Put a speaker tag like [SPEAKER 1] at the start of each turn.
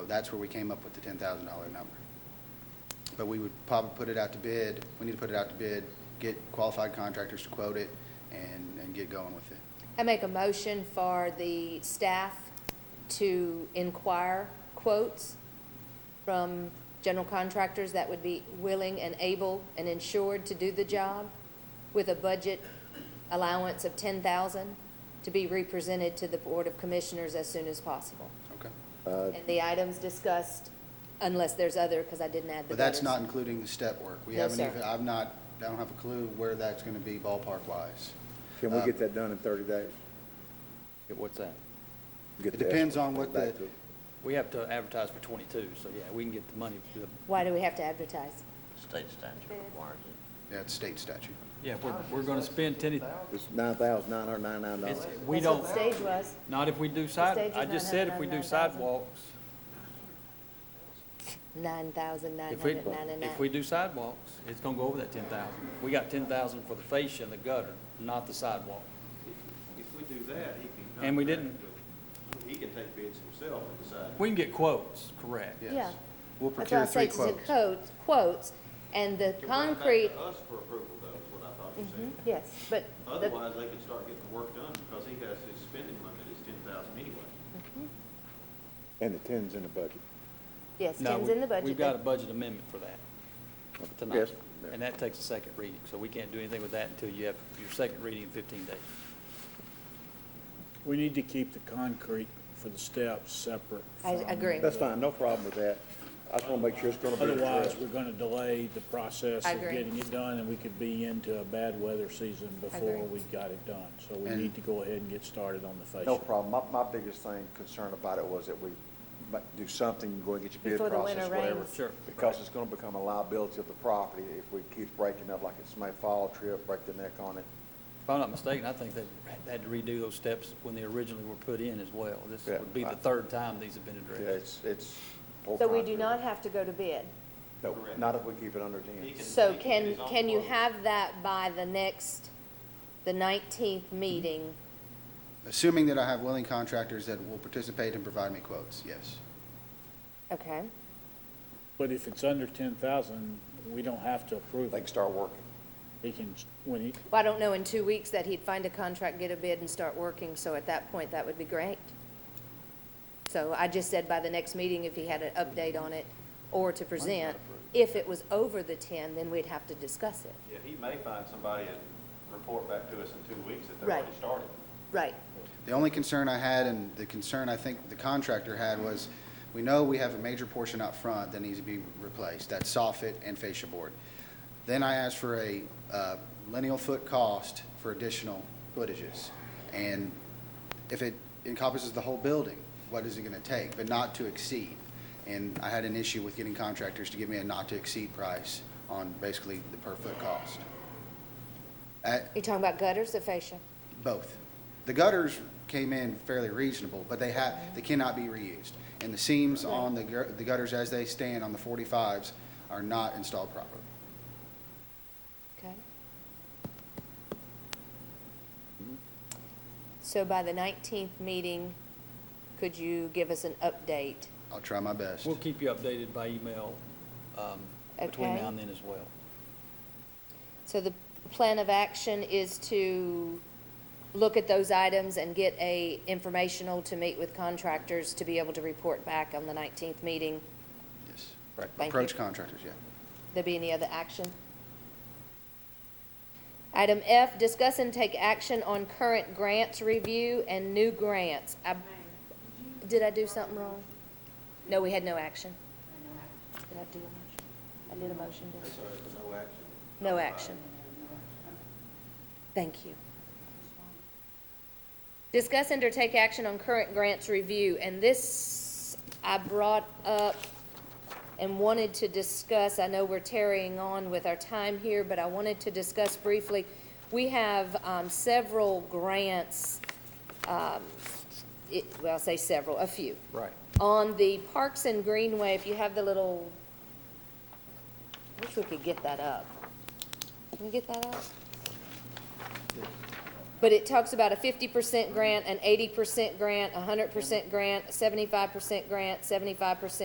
[SPEAKER 1] that's where we came up with the ten thousand dollar number. But we would probably put it out to bid, we need to put it out to bid, get qualified contractors to quote it, and, and get going with it.
[SPEAKER 2] I make a motion for the staff to inquire quotes from general contractors that would be willing and able and insured to do the job with a budget allowance of ten thousand to be represented to the Board of Commissioners as soon as possible.
[SPEAKER 1] Okay? Uh,
[SPEAKER 2] And the items discussed, unless there's other, because I didn't add the
[SPEAKER 1] But that's not
[SPEAKER 2] others.
[SPEAKER 1] including the step work. We
[SPEAKER 2] No,
[SPEAKER 1] haven't
[SPEAKER 2] sir.
[SPEAKER 1] even, I've not, I don't have a clue where that's gonna be ballpark wise.
[SPEAKER 3] Can we get that done in 30 days?
[SPEAKER 4] Yeah, What's that?
[SPEAKER 3] Get
[SPEAKER 1] It
[SPEAKER 3] the
[SPEAKER 1] depends
[SPEAKER 3] estimate
[SPEAKER 1] on what
[SPEAKER 3] back
[SPEAKER 1] the-
[SPEAKER 3] to-
[SPEAKER 4] We have to advertise for twenty-two, so yeah, we can get the money. the-
[SPEAKER 2] Why do we have to advertise?
[SPEAKER 5] State statute requires it.
[SPEAKER 1] Yeah, it's state statute.
[SPEAKER 4] Yeah, we're, we're gonna spend ten,
[SPEAKER 3] It's $9,999.
[SPEAKER 4] it's, we
[SPEAKER 2] That's
[SPEAKER 4] don't,
[SPEAKER 2] what the stage was.
[SPEAKER 4] not if we do side,
[SPEAKER 2] stage
[SPEAKER 4] I
[SPEAKER 2] is
[SPEAKER 4] just said if we do
[SPEAKER 2] 999,000.
[SPEAKER 4] sidewalks,
[SPEAKER 2] Nine thousand nine
[SPEAKER 4] if we,
[SPEAKER 2] hundred ninety-nine.
[SPEAKER 4] if we do sidewalks, it's gonna go over that ten thousand. We got ten thousand for the fascia and the gutter, not the sidewalk.
[SPEAKER 6] If we do that, he can.
[SPEAKER 4] And we
[SPEAKER 6] contract with- He can take bids himself and decide.
[SPEAKER 4] We can get quotes, correct.
[SPEAKER 1] Yes.
[SPEAKER 2] Yeah.
[SPEAKER 1] We'll
[SPEAKER 2] That's why I
[SPEAKER 1] procure
[SPEAKER 2] say
[SPEAKER 1] three
[SPEAKER 2] it's in
[SPEAKER 1] quotes.
[SPEAKER 2] quotes, quotes, and the
[SPEAKER 6] Can bring it back to
[SPEAKER 2] concrete,
[SPEAKER 6] Us for approval though, is what I thought you
[SPEAKER 2] Mhm,
[SPEAKER 6] said.
[SPEAKER 2] yes, but the,
[SPEAKER 6] Otherwise, they could start getting the work done because he has his spending limit is ten thousand anyway.
[SPEAKER 3] And the 10's in the budget.
[SPEAKER 2] yes,
[SPEAKER 4] No,
[SPEAKER 2] ten's
[SPEAKER 4] we-
[SPEAKER 2] in the budget.
[SPEAKER 4] We've got a budget amendment for that
[SPEAKER 3] Yes.
[SPEAKER 4] tonight, and that takes a second reading, so we can't do anything with that until you have your second reading in fifteen days.
[SPEAKER 7] We need to keep the concrete for the steps separate.
[SPEAKER 2] I
[SPEAKER 7] from-
[SPEAKER 2] agree.
[SPEAKER 3] That's fine, no problem with that. I just want to make sure it's going to be
[SPEAKER 7] Otherwise,
[SPEAKER 3] addressed.
[SPEAKER 7] we're gonna delay the process
[SPEAKER 2] I
[SPEAKER 7] of
[SPEAKER 2] agree.
[SPEAKER 7] getting it done, and we could be into a bad weather season before
[SPEAKER 2] agree.
[SPEAKER 7] we got it done. So we
[SPEAKER 1] And-
[SPEAKER 7] need to go ahead and get started on the fascia.
[SPEAKER 3] No problem. My, my biggest thing, concern about it was that we might do something, go and get your
[SPEAKER 2] Before
[SPEAKER 3] bid
[SPEAKER 2] the
[SPEAKER 3] process,
[SPEAKER 2] winter
[SPEAKER 3] whatever.
[SPEAKER 2] rains.
[SPEAKER 4] Sure.
[SPEAKER 3] Because it's going to become a liability of the property if we keep breaking up, like it's my fall trip, break the neck on it.
[SPEAKER 4] If I'm not mistaken, I think they had to redo those steps when they originally were put in as well. This
[SPEAKER 3] Yeah,
[SPEAKER 4] would be the
[SPEAKER 3] right.
[SPEAKER 4] third time these have been
[SPEAKER 3] Yeah, It's,
[SPEAKER 4] addressed.
[SPEAKER 3] it's. poor
[SPEAKER 2] So we do
[SPEAKER 3] concrete.
[SPEAKER 2] not have to go to bid.
[SPEAKER 3] No,
[SPEAKER 6] Correct.
[SPEAKER 3] not if we keep it under 10.
[SPEAKER 6] He
[SPEAKER 2] So
[SPEAKER 6] he get
[SPEAKER 2] can,
[SPEAKER 6] his own
[SPEAKER 2] can you
[SPEAKER 6] quote.
[SPEAKER 2] have that by the next, the nineteenth meeting?
[SPEAKER 1] Assuming that I have willing contractors that will participate and provide me quotes, yes.
[SPEAKER 2] Okay,
[SPEAKER 7] But if it's under ten thousand, we don't have to approve
[SPEAKER 3] They can
[SPEAKER 7] it.
[SPEAKER 3] start working.
[SPEAKER 7] He can, when he,
[SPEAKER 2] well, I don't know in two weeks that he'd find a contract, get a bid and start working, so at that point, that would be great. So I just said by the next meeting, if he had an update on it or to present, if it was over the ten, then we'd have to discuss it.
[SPEAKER 6] Yeah, he may find somebody and report back to us in two weeks that they've
[SPEAKER 2] Right.
[SPEAKER 6] already started.
[SPEAKER 2] Right,
[SPEAKER 1] The only concern I had, and the concern I think the contractor had, was we know we have a major portion up front that needs to be replaced, that soffit and fascia board. Then I asked for a uh, lineal foot cost for additional footages. And if it encompasses the whole building, what is it going to take, but not to exceed? And I had an issue with getting contractors to give me a not-to-exceed price on basically the per-foot cost. At-
[SPEAKER 2] you talking about gutters or fascia?
[SPEAKER 1] both. The gutters came in fairly reasonable, but they have, they cannot be reused. And the seams on the gu- the gutters as they stand on the 45s are not installed properly.
[SPEAKER 2] Okay. So by the 19th meeting, could you give us an update?
[SPEAKER 1] I'll try my best.
[SPEAKER 4] We'll keep you updated by email um, between
[SPEAKER 2] Okay.
[SPEAKER 4] now and then as well.
[SPEAKER 2] So the plan of action is to look at those items and get a informational to meet with contractors to be able to report back on the 19th meeting.
[SPEAKER 1] Yes.
[SPEAKER 2] Thank you.
[SPEAKER 1] Approach contractors, yeah.
[SPEAKER 2] There be any other action? Item F, discuss and take action on current grants review and new grants. I- Did I do something wrong? No, we had no action. Did I do a motion? I did a motion, didn't
[SPEAKER 6] That's all right, but
[SPEAKER 2] I? No
[SPEAKER 6] no action.
[SPEAKER 2] action. Thank you. Discuss and or take action on current grants review, and this I brought up and wanted to discuss, I know we're tarrying on with our time here, but I wanted to discuss briefly, we have um, several grants, um, it- well, I'll say several, a few.
[SPEAKER 4] Right.
[SPEAKER 2] On the Parks and Greenway, if you have the little, I wish we could get that up. Can we get that up? But it talks about a fifty percent grant, an eighty percent grant, a hundred percent grant, seventy-five percent grant, seventy-five percent